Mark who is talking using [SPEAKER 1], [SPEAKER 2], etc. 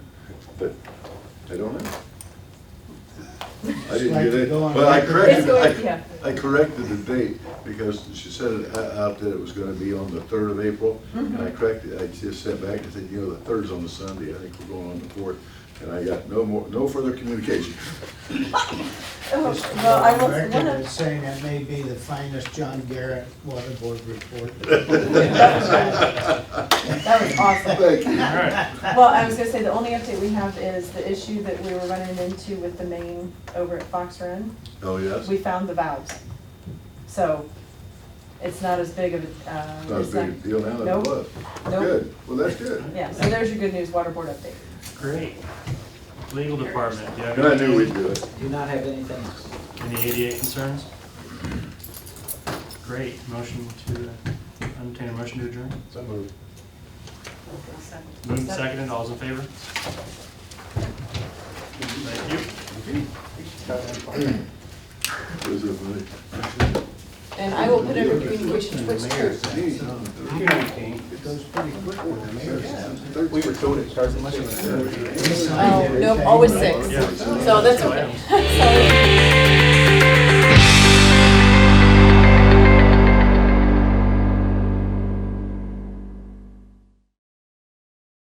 [SPEAKER 1] but I don't know. I
[SPEAKER 2] Like
[SPEAKER 1] didn't
[SPEAKER 2] to
[SPEAKER 1] get it,
[SPEAKER 2] go on
[SPEAKER 1] but I
[SPEAKER 2] record.
[SPEAKER 1] corrected,
[SPEAKER 3] Let's go, yeah.
[SPEAKER 1] I, I corrected the date, because she said it o- out that it was gonna be on the third of April. And
[SPEAKER 3] Mm-hmm.
[SPEAKER 1] I corrected, I just sent back and said, you know, the third's on the Sunday, I think we're going on the fourth, and I got no more, no further communication.
[SPEAKER 3] Oh,
[SPEAKER 2] Just
[SPEAKER 3] Well, I
[SPEAKER 2] record
[SPEAKER 3] was, one
[SPEAKER 2] is
[SPEAKER 3] of,
[SPEAKER 2] Saying that may be the finest John Garrett water board report.
[SPEAKER 3] that was awesome.
[SPEAKER 1] Thank you.
[SPEAKER 4] All right,
[SPEAKER 3] Well, I was gonna say, the only update we have is the issue that we were running into with the main over at Fox Run.
[SPEAKER 1] Oh, yes?
[SPEAKER 3] We found the valves. So it's not as big of a, uh.
[SPEAKER 1] Not as
[SPEAKER 3] it's
[SPEAKER 1] big a deal now that it
[SPEAKER 3] Nope.
[SPEAKER 1] was.
[SPEAKER 3] Nope.
[SPEAKER 1] Good, well, that's good.
[SPEAKER 3] Yeah, so there's your good news, water board update.
[SPEAKER 4] great. Legal department, do you have
[SPEAKER 1] And I knew
[SPEAKER 4] any,
[SPEAKER 1] we'd do it.
[SPEAKER 5] Do not have anything.
[SPEAKER 4] any ADA concerns? Great, motion to, uh, entertain a motion to adjourn?
[SPEAKER 1] So moved.
[SPEAKER 4] Moved, seconded, all's in favor? Thank you.
[SPEAKER 1] Those are funny.
[SPEAKER 3] And I will put under communication Twitch group.
[SPEAKER 1] Geez,
[SPEAKER 2] It goes pretty quick when the mayor says.
[SPEAKER 1] third-
[SPEAKER 5] We were told it starts at
[SPEAKER 2] He
[SPEAKER 5] six.
[SPEAKER 2] signed
[SPEAKER 3] Oh, nope,
[SPEAKER 2] everything.
[SPEAKER 3] always six. So that's okay. Sorry.